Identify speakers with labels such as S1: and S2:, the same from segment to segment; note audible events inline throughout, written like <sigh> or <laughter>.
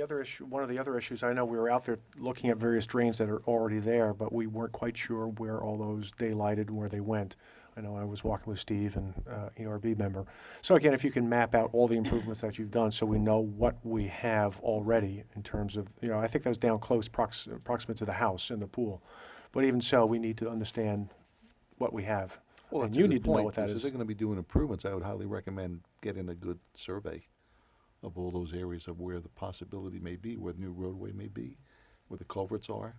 S1: The other issue, one of the other issues, I know we were out there looking at various drains that are already there, but we weren't quite sure where all those daylighted and where they went. I know I was walking with Steve and, uh, ERB member. So again, if you can map out all the improvements that you've done, so we know what we have already in terms of, you know, I think that was down close prox- proximate to the house and the pool. But even so, we need to understand what we have.
S2: Well,
S1: And
S2: that's a
S1: you
S2: good
S1: need to know
S2: point,
S1: what that
S2: because
S1: is.
S2: If they're gonna be doing improvements, I would highly recommend getting a good survey of all those areas of where the possibility may be, where the new roadway may be, where the culverts are.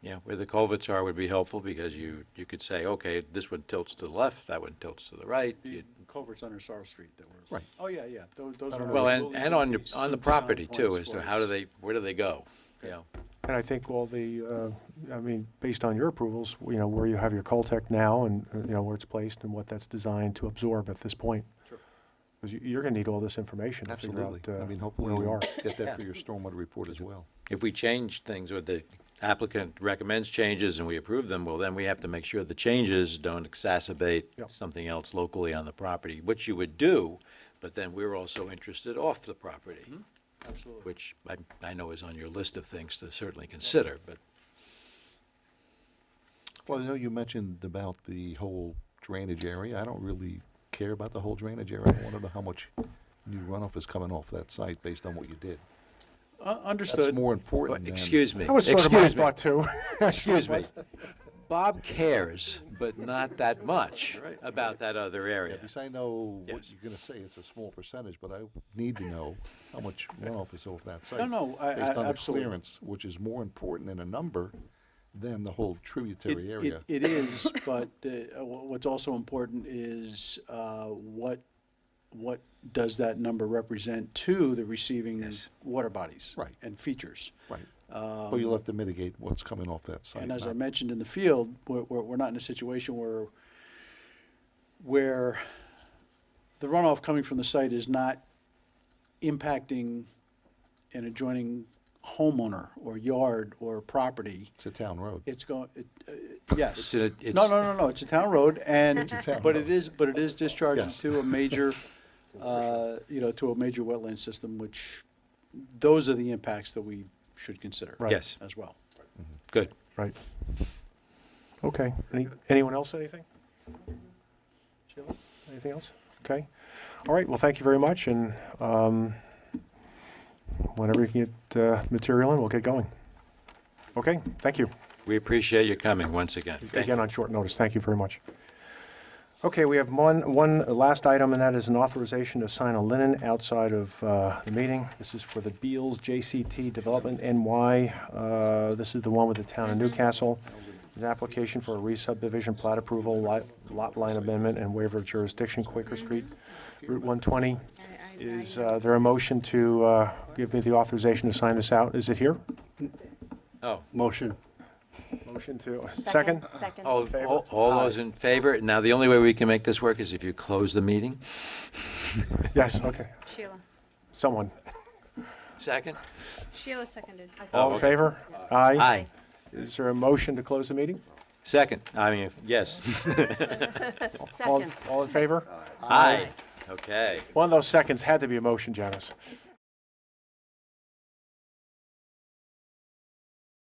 S3: Yeah, where the culverts are would be helpful because you, you could say, okay, this one tilts to the left, that one tilts to the right.
S4: The
S3: you-
S4: culverts under Sorrow Street that were.
S2: Right.
S4: Oh, yeah, yeah, tho- those are.
S3: Well, and,
S4: absolutely
S3: and on, your-
S4: good
S3: on the
S4: design
S3: property
S4: points
S3: too, as
S4: for
S3: to how do
S4: us.
S3: they, where do they go? You know,
S1: And I think all the, uh, I mean, based on your approvals, you know, where you have your Coltech now and, uh, you know, where it's placed and what that's designed to absorb at this point.
S4: Sure.
S1: Because you, you're gonna need all this information to figure
S2: Absolutely.
S1: out,
S2: I mean,
S1: uh,
S2: hopefully
S1: where we
S2: <coughs> we'll
S1: are.
S2: get that for your stormwater report as well.
S3: if we change things or the applicant recommends changes and we approve them, well, then we have to make sure the changes don't exacerbate
S1: Yep.
S3: something else locally on the property, which you would do, but then we're also interested off the property,
S4: Mm-hmm. Absolutely.
S3: which I, I know is on your list of things to certainly consider, but
S2: Well, I know you mentioned about the whole drainage area. I don't really care about the whole drainage area. I wanna know how much new runoff is coming off that site based on what you did.
S4: Uh,
S2: That's
S4: Understood.
S2: more important than.
S3: excuse me.
S1: That was sort of my
S3: excuse me.
S1: thought too. <laughs>
S3: Excuse me. Bob cares, but not that much about that other area.
S2: At least I know what
S3: Yes.
S2: you're gonna say, it's a small percentage, but I need to know how
S4: <laughs>
S2: much runoff is over that site.
S4: No, no, I- I-
S2: Based on the
S4: absolutely.
S2: clearance, which is more important in a number than the whole
S4: It-
S2: tributary
S4: it-
S2: area.
S4: It is, but uh, wha- what's also important is uh, what, what does that number represent to the receiving
S3: Yes.
S4: water bodies?
S2: Right.
S4: And features.
S2: Right. But you'll have to mitigate what's coming off that site.
S4: um, And as I
S2: not-
S4: mentioned in the field, we're, we're, we're not in a situation where, where the runoff coming from the site is not impacting an adjoining homeowner or yard or property.
S2: It's a town road.
S4: It's going, it, uh, yes.
S3: It's in a-
S4: No,
S3: it's-
S4: no, no, no, it's a town road and,
S2: town
S4: but it is, but it is discharging
S2: Yes.
S4: to a major, uh, you know, to a major wetland system, which, those are the impacts that we should consider.
S1: Right.
S3: Yes,
S4: As well.
S3: good.
S1: Right. Okay. Any, anyone else, anything? Sheila, anything else? Okay. All right, well, thank you very much, and, um, whenever you can get, uh, material in, we'll get going. Okay, thank you.
S3: We appreciate you coming once again. Thank
S1: Again,
S3: you.
S1: on short notice, thank you very much. Okay, we have one, one last item, and that is an authorization to sign a linen outside of uh, the meeting. This is for the Beals JCT Development NY. Uh, This is the one with the town of Newcastle. An application for a re-subdivision plat approval, li- lot line amendment, and waiver of jurisdiction, Quaker Street, Route 120. Is uh, there a motion to uh, give me the authorization to sign this out? Is it here?
S3: Oh,
S5: Motion.
S1: Motion to, second? Oh.
S6: Second.
S3: all,
S1: favor?
S3: all- all those in favor? Now, the only way we can make this work is if you close the meeting.
S1: Yes, okay.
S7: Sheila.
S1: Someone.
S3: Second?
S7: Sheila seconded.
S1: All in
S3: okay.
S1: favor? Aye.
S3: Aye.
S1: Is there a motion to close the meeting?
S3: Second, I mean, yes.
S1: All-
S7: Second.
S1: All in favor?
S3: Aye. Okay.
S1: One of those seconds had to be a motion, Janice.